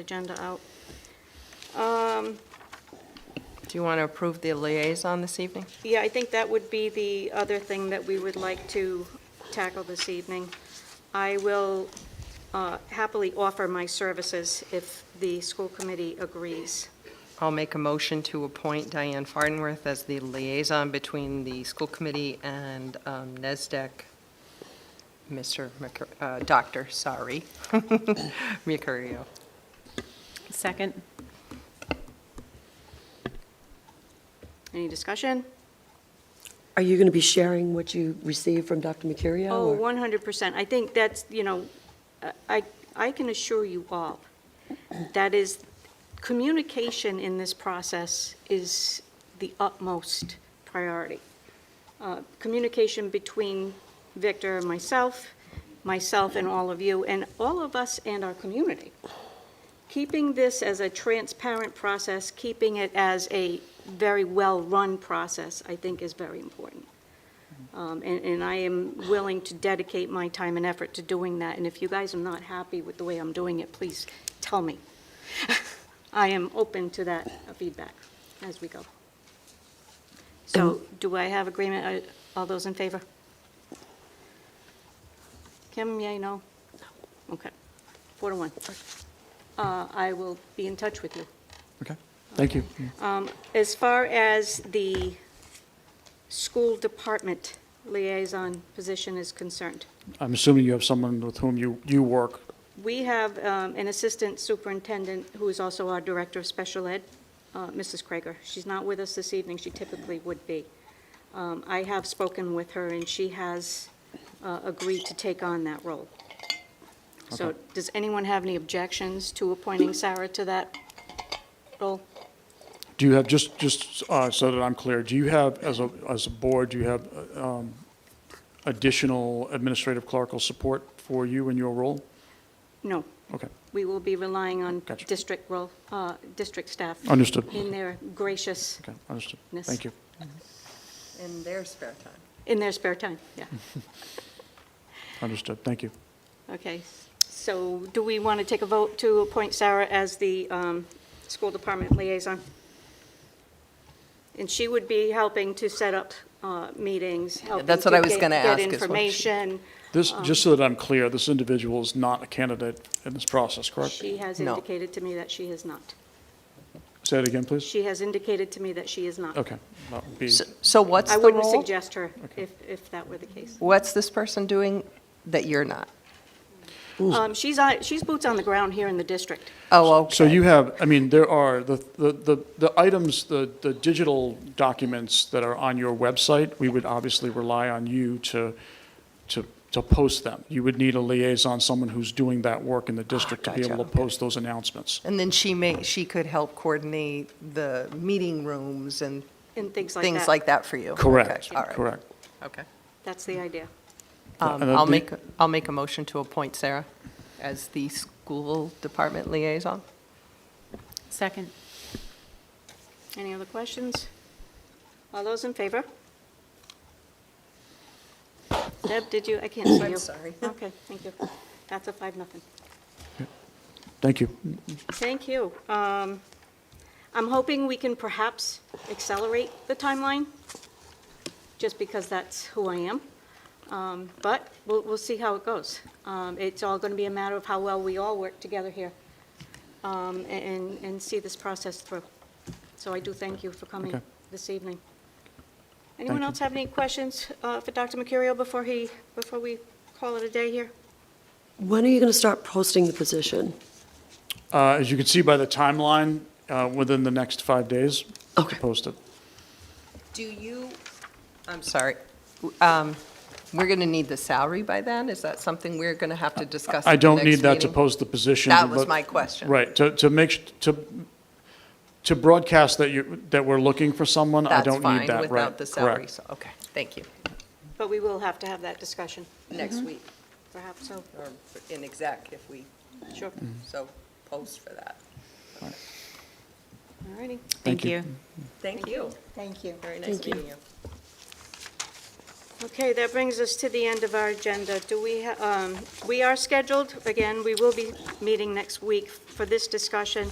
agenda out. Um, Do you want to approve the liaison this evening? Yeah, I think that would be the other thing that we would like to tackle this evening. I will uh, happily offer my services if the school committee agrees. I'll make a motion to appoint Diane Fardenworth as the liaison between the school committee and um, NESDEC, Mr., Mercu- uh, Dr., sorry, Mercurio. Second. Any discussion? Are you going to be sharing what you received from Dr. Mercurio? Oh, or- 100%. I think that's, you know, uh, I, I can assure you all, that is, communication in this process is the utmost priority. Uh, Communication between Victor and myself, myself and all of you, and all of us and our community. Keeping this as a transparent process, keeping it as a very well-run process, I think is very important. Um, And, and I am willing to dedicate my time and effort to doing that, and if you guys are not happy with the way I'm doing it, please tell me. I am open to that uh, feedback as we go. So do I have agreement? Are- All those in favor? Kim, yea, no? Okay. Four to one. Uh, I will be in touch with you. Okay, thank you. As far as the school department liaison position is concerned, I'm assuming you have someone with whom you, you work. we have um, an assistant superintendent who is also our director of special ed, uh, Mrs. Krager. She's not with us this evening, she typically would be. Um, I have spoken with her, and she has uh, agreed to take on that role. So does anyone have any objections to appointing Sarah to that role? Do you have, just, just uh, so that I'm clear, do you have, as a, as a board, do you have uh, um, additional administrative clerical support for you in your role? No. Okay, We will be relying on Gotcha. district role, uh, district staff. understood. In their gracious, Okay, understood. Yes. Thank you. In their spare time. in their spare time, yeah. Hmm. Understood, thank you. Um, Okay, so do we want to take a vote to appoint Sarah as the um, school department liaison? And she would be helping to set up uh, meetings, helping that's what I to was get- gonna ask, Get is what she- information. This, just so that I'm clear, this individual is not a candidate in this process, correct? She has No. indicated to me that she is not. Say it again, please? She has indicated to me that she is not. Okay, that would be, So what's I the wouldn't role? suggest her Okay. if, if that were the case. What's this person doing that you're not? Um, She's, on- she's boots on the ground here in the district. Oh, okay. So you have, I mean, there are the, the, the the items, the, the digital documents that are on your website, we would obviously rely on you to, to, to post them. You would need a liaison, someone who's doing that work in the district to be gotcha, able to okay. post those announcements. And then she may, she could help coordinate the meeting rooms and And things like that. things like that for you? Okay, Correct, all right, correct. Okay. That's the idea. Um, And, uh, I'll the- make, I'll make a motion to appoint Sarah as the school department liaison. Second. Any other questions? All those in favor? Deb, did you, I can't see you. I'm sorry. Okay, thank you. That's a five, nothing. Thank you. Thank you. Um, I'm hoping we can perhaps accelerate the timeline, just because that's who I am. Um, But we'll, we'll see how it goes. Um, It's all going to be a matter of how well we all work together here um, and, and see this process through. So I do thank you for coming Okay. this evening. Anyone Thank you. else have any questions uh, for Dr. Mercurio before he, before we call it a day here? When are you going to start posting the position? Uh, as you can see by the timeline, uh, within the next five days, Okay. post it. Do you, I'm sorry, um, we're going to need the salary by then? Is that something we're going to have to discuss? I at the don't next need that to meeting? post the position. That was but- my question. Right, to, to make, sh- to, to broadcast that you, that we're looking for someone, I don't need that, right? That's fine without the salary, correct. so, okay, thank you. But we will have to have that discussion, Next week, perhaps, so, or in exec, if we sure. Mm. so post for that. All righty. Thank you. Thank you. Thank you. Very nice meeting you. Okay, that brings us to the end of our agenda. Do we, ha- um, we are scheduled, again, we will be meeting next week for this discussion.